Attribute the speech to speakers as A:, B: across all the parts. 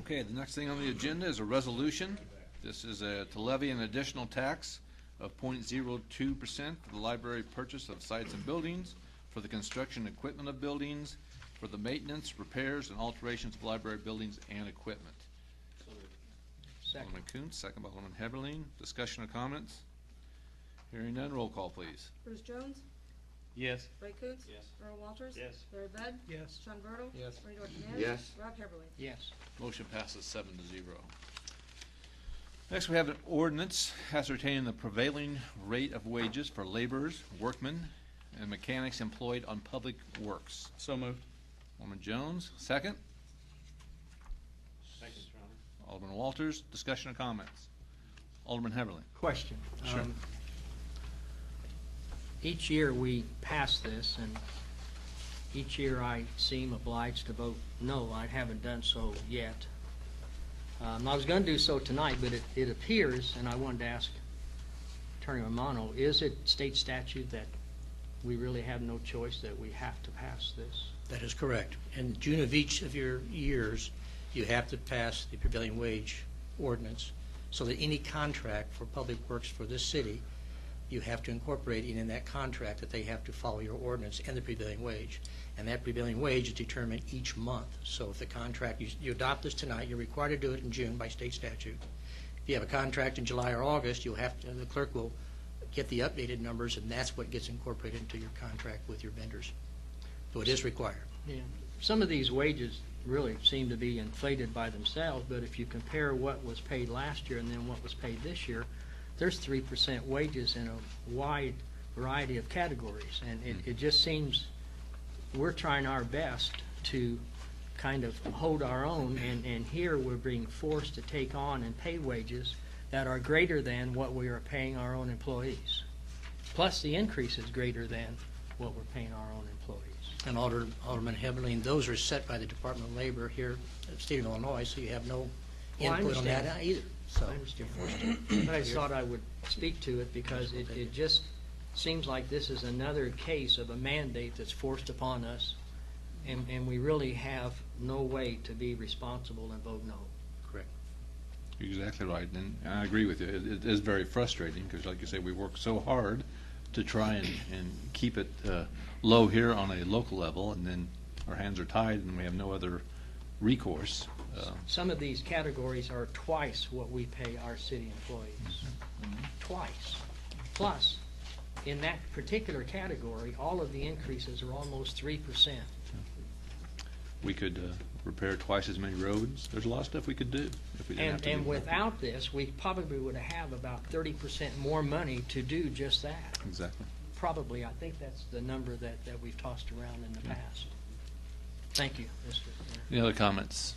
A: Okay, the next thing on the agenda is a resolution. This is uh, to levy an additional tax of 0.02 percent for the library purchase of sites and buildings, for the construction and equipment of buildings, for the maintenance, repairs, and alterations of library buildings and equipment.
B: Second.
A: Alderman Coontz, second by Alderman Heberlin. Discussion or comments? Hearing none, roll call, please.
C: Bruce Jones?
B: Yes.
C: Ray Coontz?
D: Yes.
C: Earl Walters?
D: Yes.
C: Larry Bud?
B: Yes.
C: Sean Bertle?
B: Yes.
C: Rodney Dorchenez?
E: Yes.
C: Rob Heberlin?
B: Yes.
A: Motion passes seven to zero. Next, we have an ordinance ascertaining the prevailing rate of wages for laborers, workmen, and mechanics employed on public works.
B: So moved.
A: Alderman Jones, second.
D: Second, Your Honor.
A: Alderman Walters, discussion or comments? Alderman Heberlin.
B: Question.
A: Sure.
B: Um, Each year we pass this, and each year I seem obliged to vote no. I haven't done so yet. Um, I was going to do so tonight, but it, it appears, and I wanted to ask Attorney Romano, is it state statute that we really have no choice, that we have to pass this?
F: That is correct. In June of each of your years, you have to pass the prevailing wage ordinance so that any contract for public works for this city, you have to incorporate in that contract that they have to follow your ordinance and the prevailing wage. And that prevailing wage is determined each month. So if the contract, you- you adopt this tonight, you're required to do it in June by state statute. If you have a contract in July or August, you'll have, to- the clerk will get the updated numbers, and that's what gets incorporated into your contract with your vendors. So it is required.
B: Yeah, some of these wages really seem to be inflated by themselves, but if you compare what was paid last year and then what was paid this year, there's three percent wages in a wide variety of categories, and it, it just seems we're trying our best to kind of hold our own, and, and here we're being forced to take on and pay wages that are greater than what we are paying our own employees. Plus, the increase is greater than what we're paying our own employees.
F: And Alder- Alderman Heberlin, those are set by the Department of Labor here, in the state of Illinois, so you have no
B: Well, I
F: input on
B: understand.
F: that either. So
B: I understand. But I thought I would speak to it because it, it just seems like this is another case of a mandate that's forced upon us, and, and we really have no way to be responsible and vote no.
A: You're exactly right, and I agree with you. It, it is very frustrating, because like you say, we work so hard to try and, and keep it, uh, low here on a local level, and then our hands are tied and we have no other recourse. Uh,
B: Some of these categories are twice what we pay our city employees. Twice. Plus, in that particular category, all of the increases are almost three percent.
A: We could, uh, repair twice as many roads. There's a lot of stuff we could do if we didn't have
B: And,
A: to.
B: and
A: do-
B: without this, we probably would have about thirty percent more money to do just that.
A: Exactly.
B: Probably, I think that's the number that, that we've tossed around in the past. Thank you, Mr. Mayor.
A: Any other comments?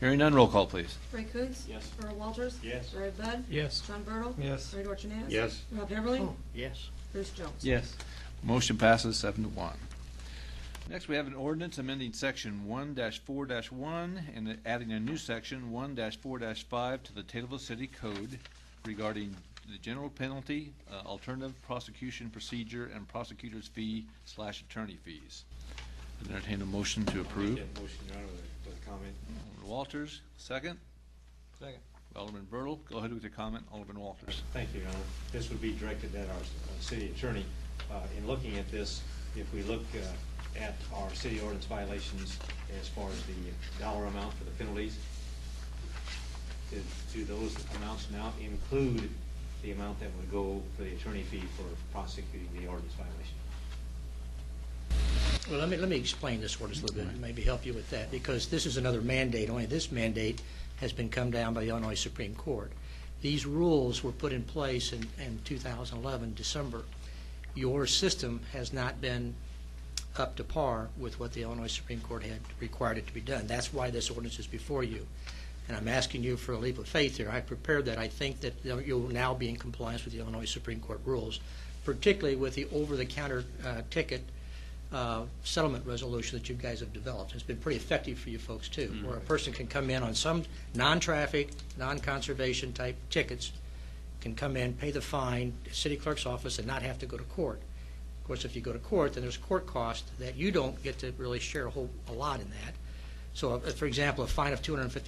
A: Hearing none, roll call, please.
C: Ray Coontz?
D: Yes.
C: Earl Walters?
D: Yes.
C: Larry Bud?
B: Yes.
C: Sean Bertle?
B: Yes.
C: Rodney Dorchenez?
E: Yes.
C: Rob Heberlin?
B: Oh, yes.
C: Bruce Jones?
B: Yes.
A: Motion passes seven to one. Next, we have an ordinance amending section one four one and adding a new section one four five to the Taylorville City Code regarding the general penalty, uh, alternative prosecution procedure, and prosecutor's fee slash attorney fees. Entertain a motion to approve.
D: I'll make that motion, Your Honor, with a- with a comment.
A: Alderman Walters, second.
B: Second.
A: Alderman Bertle, go ahead with your comment, Alderman Walters.
D: Thank you, Your Honor. This would be directed at our uh, city attorney. Uh, In looking at this, if we look uh, at our city ordinance violations as far as the dollar amount for the penalties, do- do those amounts now include the amount that would go for the attorney fee for prosecuting the ordinance violation?
F: Well, let me, let me explain this ordinance a little bit, and maybe help you with that, because this is another mandate, only this mandate has been come down by the Illinois Supreme Court. These rules were put in place in, in 2011, December. Your system has not been up to par with what the Illinois Supreme Court had required it to be done. That's why this ordinance is before you. And I'm asking you for a leap of faith here. I prepared that. I think that you'll now be in compliance with the Illinois Supreme Court rules, particularly with the over-the-counter uh, ticket uh, settlement resolution that you guys have developed. It's been pretty effective for you folks, too, where a person can come in on some non-traffic, non-conservation type tickets, can come in, pay the fine, city clerk's office, and not have to go to court. Of course, if you go to court, then there's court cost that you don't get to really share a whole, a lot in that. So, uh, for example, a fine of two hundred and fifty